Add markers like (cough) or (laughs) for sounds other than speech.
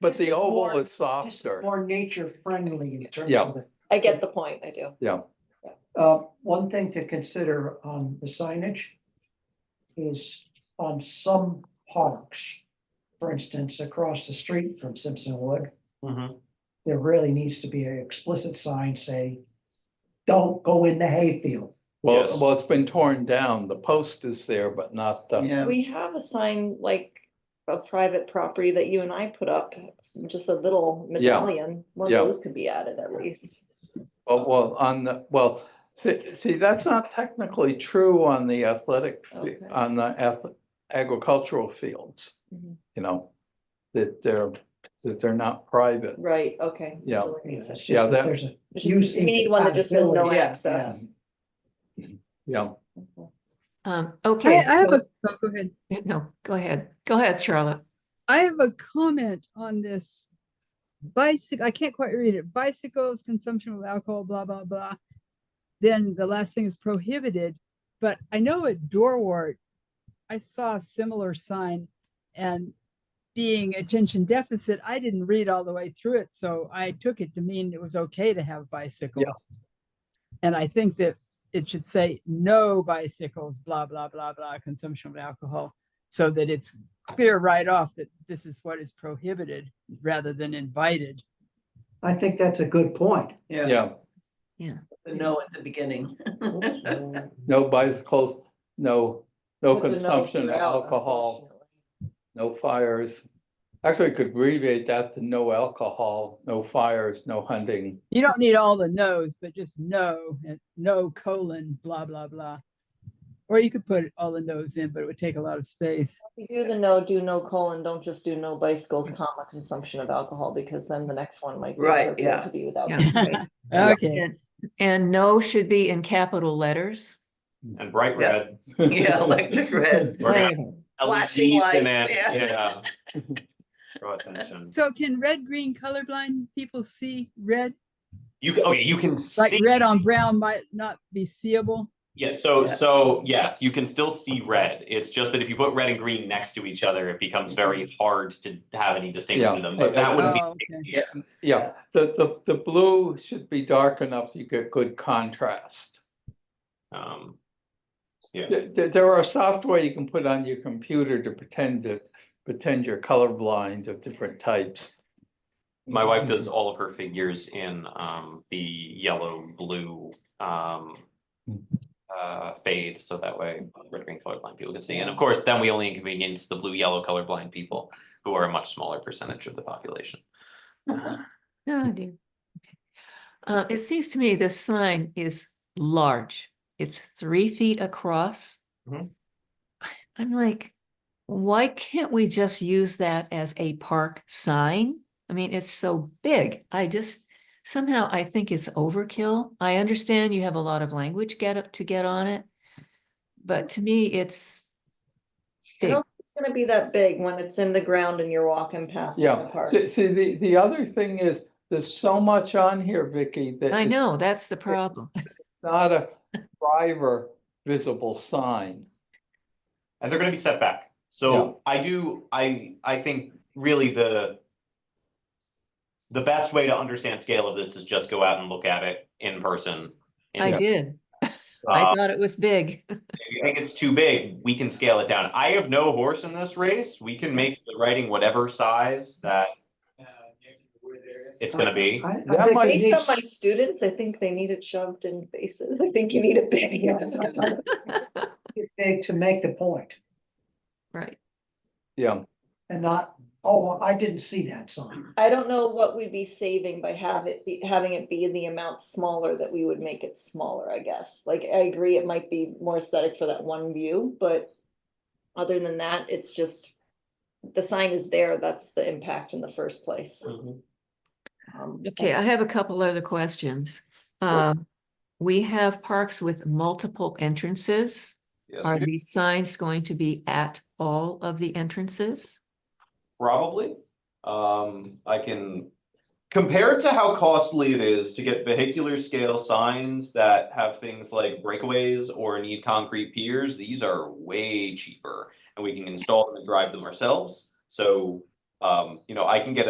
But This the is more- oval is This is softer. More nature friendly in terms Yeah. of the, I get the point, I do. uh, one thing to consider on the signage. Is on some parks, for instance, across the street from Simpson Wood, Mm-hmm. Mhm. there really needs to be an explicit sign saying. Don't go in the hayfield. Well, Yes. well, it's been torn down. The post is there, but not the, Yeah, We have a sign like a private property that you and I put up, just a little Yeah. medallion. One Yeah. of those could be added at least. well, well, on the, well, see, see, that's not technically true on the athletic, fi- Okay. on the ath- agricultural fields. Mhm. You know, that they're, that they're not private. Right, okay. Yeah. It's just Yeah, that that- There's a We use. need one that just says no incompatibility. access. Yeah, Um, I, okay. I have so- a, oh, go ahead. No, go ahead. Go ahead, Charlotte. I have a comment on this. Bicycle, I can't quite read it. Bicycles, consumption of alcohol, blah, blah, blah. Then the last thing is prohibited, but I know at Dorwart, I saw a similar sign and being attention deficit, I didn't read all the way through it, so I took it to mean it was okay to have bicycles. And I think that it should say no bicycles, blah, blah, blah, blah, consumption of alcohol, so that it's clear right off that this is what is prohibited rather than invited. I think that's a good point. yeah, yeah. the no at the beginning. No bicycles, no, no Put the no consumption of throughout, alcohol, unfortunately. no fires. Actually, I could abbreviate that to no alcohol, no fires, no hunting. You don't need all the no's, but just no, and no colon, blah, blah, blah. Or you could put all the no's in, but it would take a lot of space. If You do the no, do no colon, don't just do no bicycles, comma, consumption of alcohol, because then the next one might. be Right, appropriate yeah. To be without. Yeah. constraint. Okay, And- And no should be in capital letters. and bright Yeah. red. (laughs) Yeah, (laughs) electric red. We're gonna have E Flashing LEDs in lights, it, yeah. (laughs) yeah. Draw attention. so can red, green, colorblind people see red? You, can- okay, you can Like see, red on brown might not be seeable? yeah, so, Yeah. so, yes, you can still see red. It's just that if you put red and green next to each other, it becomes very Mm-hmm. hard to have any distinction Yeah. in them, but that wouldn't be. Oh, the case okay. here. Yeah, the, the, the blue should be dark enough so you get good contrast. Um, Yeah, There, there- there are software you can put on your computer to pretend to, pretend you're colorblind of different types. my wife does all of her figures in, um, the yellow, blue, um, uh, fade, so that way red, green, colorblind people can see. And of course, then we only inconvenience the blue, yellow colorblind people, who are a much smaller percentage of the (laughs) population. No, Oh, dear. Okay. Uh, it seems to me this sign is large. It's three feet across. Mhm. I'm like, why can't we just use that as a park sign? I mean, it's so big. I just somehow I think it's overkill. I understand you have a lot of language get up to get on it. But to me, it's I big. don't think It's gonna be that big when it's in the ground and you're walking past. in the Yeah, park. see, see, the, the other thing is, there's so much on here, Vicky, that I it's know, that's the problem. (laughs) not a driver visible sign. and they're gonna be set back. So I do, I, I think really the. The best way to understand scale of this is just go out and look at it in person. I And, did. uh, I thought it was big. (laughs) if you think it's too big, we can scale it down. I have no horse in this race. We can make the writing whatever size that. It's gonna be. I- I That think might- it Based on needs- my students, I think they need it shoved in faces. I think you need it big. Yeah. It's big to make the point Right. Yeah, and not, oh, I didn't see that sign. I don't know what we'd be saving by have it, be- having it be the amount smaller that we would make it smaller, I guess. Like, I agree, it might be more aesthetic for that one view, but other than that, it's just, the sign is there, that's the impact in the first place. Um, Okay, I have a couple other questions. Um, we have parks with multiple entrances. Are these signs going to be at all of the entrances? Probably. Um, I can, compared to how costly it is to get vehicular scale signs that have things like breakaways or need concrete piers, these are way cheaper. And we can install them and drive them ourselves. So, um, you know, I can get